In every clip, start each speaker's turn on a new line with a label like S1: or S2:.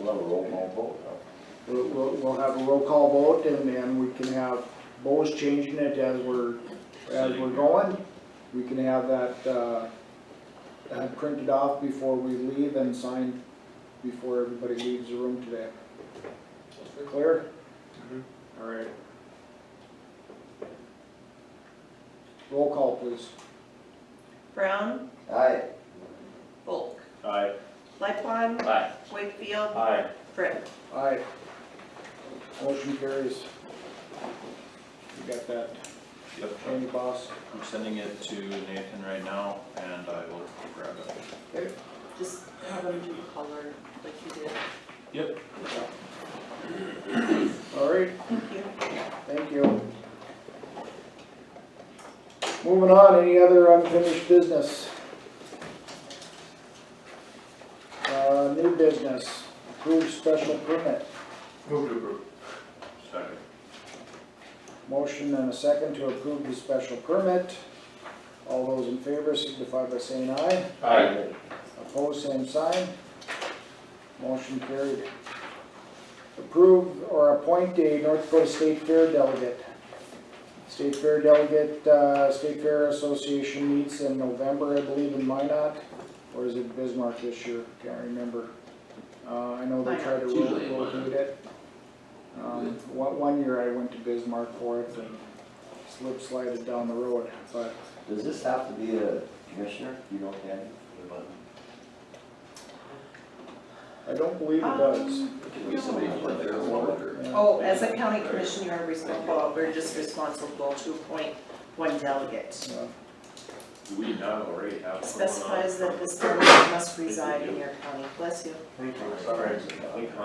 S1: We'll have a roll call vote, huh?
S2: We'll, we'll, we'll have a roll call vote and then we can have Bo's changing it as we're, as we're going. We can have that, uh, uh, printed off before we leave and signed before everybody leaves the room today. Clear? All right. Roll call, please.
S3: Brown,
S1: Aye.
S3: Bulk,
S4: Aye.
S3: Lightfon,
S4: Aye.
S3: Wakefield,
S4: Aye.
S3: Britt.
S2: Aye. Motion carries. You got that,
S4: Yep,
S2: Andy boss?
S4: I'm sending it to Nathan right now and I will grab it.
S3: Just have them do color like you did.
S4: Yep.
S2: All right,
S3: Thank you.
S2: Thank you. Moving on, any other unfinished business? Uh, new business, approved special permit,
S4: Move to approve. Second.
S2: motion and a second to approve the special permit. All those in favor signify by saying aye,
S4: Aye.
S2: opposed, same sign. Motion carried. Approve or appoint a North Dakota State Fair delegate. State Fair delegate, uh, State Fair Association meets in November, I believe, in Minot, or is it Bismarck this year? Can't remember. Uh, I know they try to
S5: Minot. Usually in
S2: ro- rotate it. Um, one, one year I went to Bismarck for it and slip slided down the road, but
S1: Does this have to be a commissioner? You know, Candy?
S2: I don't believe it does.
S3: Um,
S5: Could be somebody who went there as well, or-
S2: Yeah.
S3: Oh, as a county commissioner, you are responsible, we're just responsible to appoint one delegate.
S2: Yeah.
S4: Do we not already have someone on?
S3: Specifies that this delegate must reside in your county. Bless you,
S4: Sorry.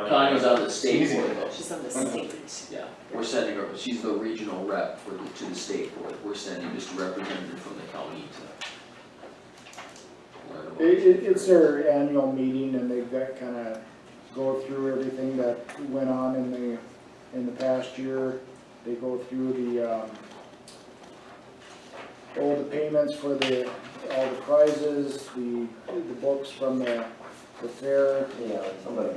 S5: Connie was on the state board though.
S3: she's on the state.
S5: Yeah, we're sending her, she's the regional rep for, the- to the state board, we're sending just a representative from the county to.
S2: It, it, it's their annual meeting and they've got kinda go through everything that went on in the, in the past year. They go through the, um, all the payments for the, all the prizes, the, the books from the, the fair.
S1: Yeah, somebody.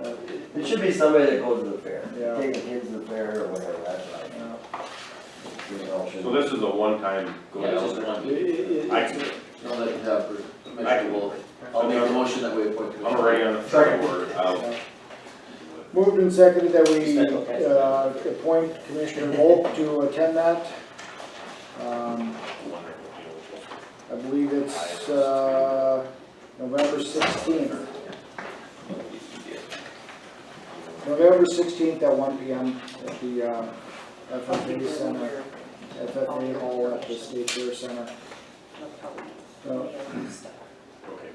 S1: It should be somebody that goes to the fair.
S2: Yeah.
S1: Take the kids to the fair or whatever, that's right.
S2: uh,
S1: You know, should-
S4: So this is a one-time go
S5: Yeah, it's just
S2: It,
S4: down.
S5: one,
S2: it, it-
S4: I,
S2: it's-
S5: I'll let you have, her.
S4: I-
S5: Commissioner Wolf, I'll make the motion that we appoint.
S4: I'm
S5: Commissioner
S4: already on the second word.
S2: uh, Moved and seconded that we, uh, appoint Commissioner Volk to attend that. Um, I believe it's, uh, November sixteenth, November sixteenth at one P M at the, uh, FFA Center, FFA Hall at the State Fair Center. Uh,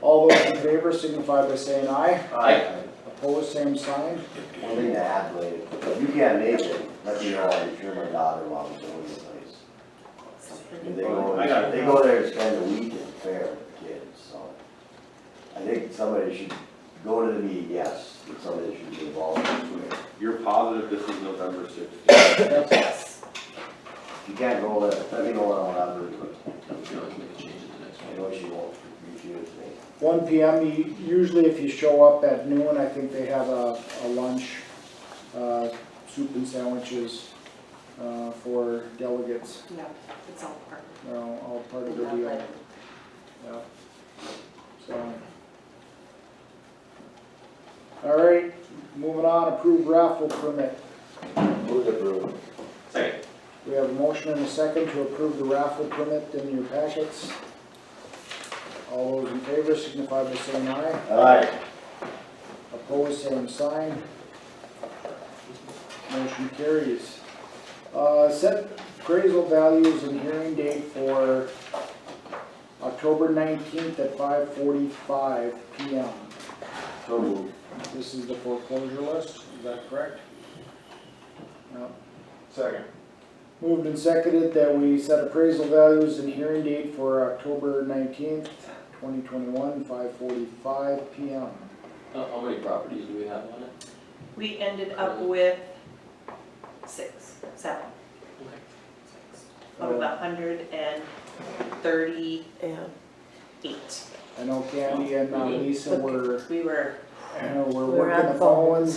S2: All those in favor signify by saying aye,
S5: Aye.
S2: opposed, same sign.
S1: One thing to add later, if you can't make it, let me know if you're my daughter-in-law is going to the place. And They go,
S4: I got it.
S1: they go there to spend a week at the fair with kids, so. I think somebody should go to the meeting, yes, but somebody should be involved in it.
S4: You're positive this is November sixteenth?
S3: Yes.
S1: If you can't go, let, let me know what I'll have to do.
S5: We can always make a change at the next
S1: I
S5: meeting.
S1: know she won't refuse me.
S2: One P M, usually if you show up at noon, I think they have a, a lunch, uh, soup and sandwiches, uh, for delegates,
S3: No, it's all part
S2: you know, all part
S3: of
S2: of
S3: the
S2: the deal.
S3: delegate.
S2: Yeah. So. All right, moving on, approve raffle permit.
S1: Move the approve.
S4: Second.
S2: We have a motion and a second to approve the raffle permit in your packets. All those in favor signify by saying aye.
S1: Aye.
S2: Opposed, same sign. Motion carries. Uh, set appraisal values and hearing date for October nineteenth at five forty-five P M.
S1: So moved.
S2: This is the foreclosure list, is that correct? No.
S4: Second.
S2: Moved and seconded that we set appraisal values and hearing date for October nineteenth, twenty twenty-one, five forty-five P M.
S5: How, Uh, how many properties do we have on it?
S3: We ended up with six, seven. Out of a hundred and thirty-eight.
S2: I know Candy and uh, Lisa were,
S3: We were
S2: I know we're
S3: We're on
S2: working the
S3: phones.
S2: phones